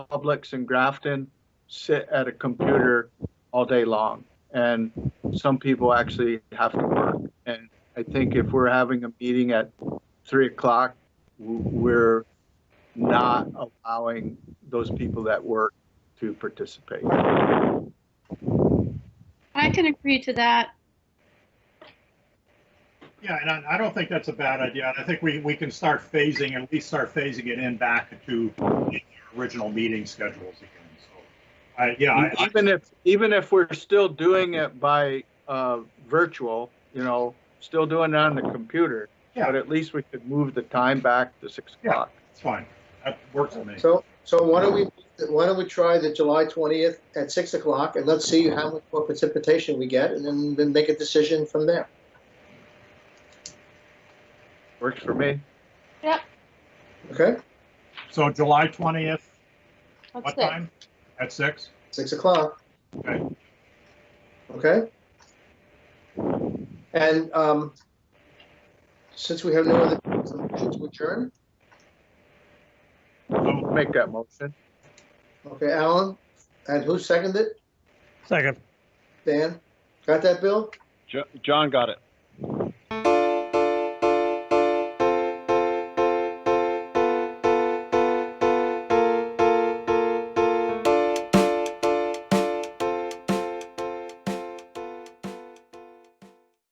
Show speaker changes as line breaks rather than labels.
Publix and Grafton sit at a computer all day long, and some people actually have to work. And I think if we're having a meeting at three o'clock, w- we're not allowing those people that work to participate.
I can agree to that.
Yeah, and I, I don't think that's a bad idea. And I think we, we can start phasing, at least start phasing it in back to the original meeting schedules again. So, I, yeah, I, I-
E, Even if, even if we're still doing it by uh, virtual, you know, still doing it on the computer,
Yeah.
but at least we could move the time back to six
Yeah.
o'clock.
it's fine. That works for me.
So, so why don't we, why don't we try the July 20th at 6 o'clock, and let's see how much more precipitation we get, and then, then make a decision from there.
Works for me.
Okay?
So July 20th,
That's
what
it.
time? At six?
6 o'clock.
Okay.
Okay? And um, since we have no other, motion to adjourn,
So,
Make that motion.
okay, Alan, and who seconded it?
Second.
Dan? Got that, Bill?
Jo- John got it.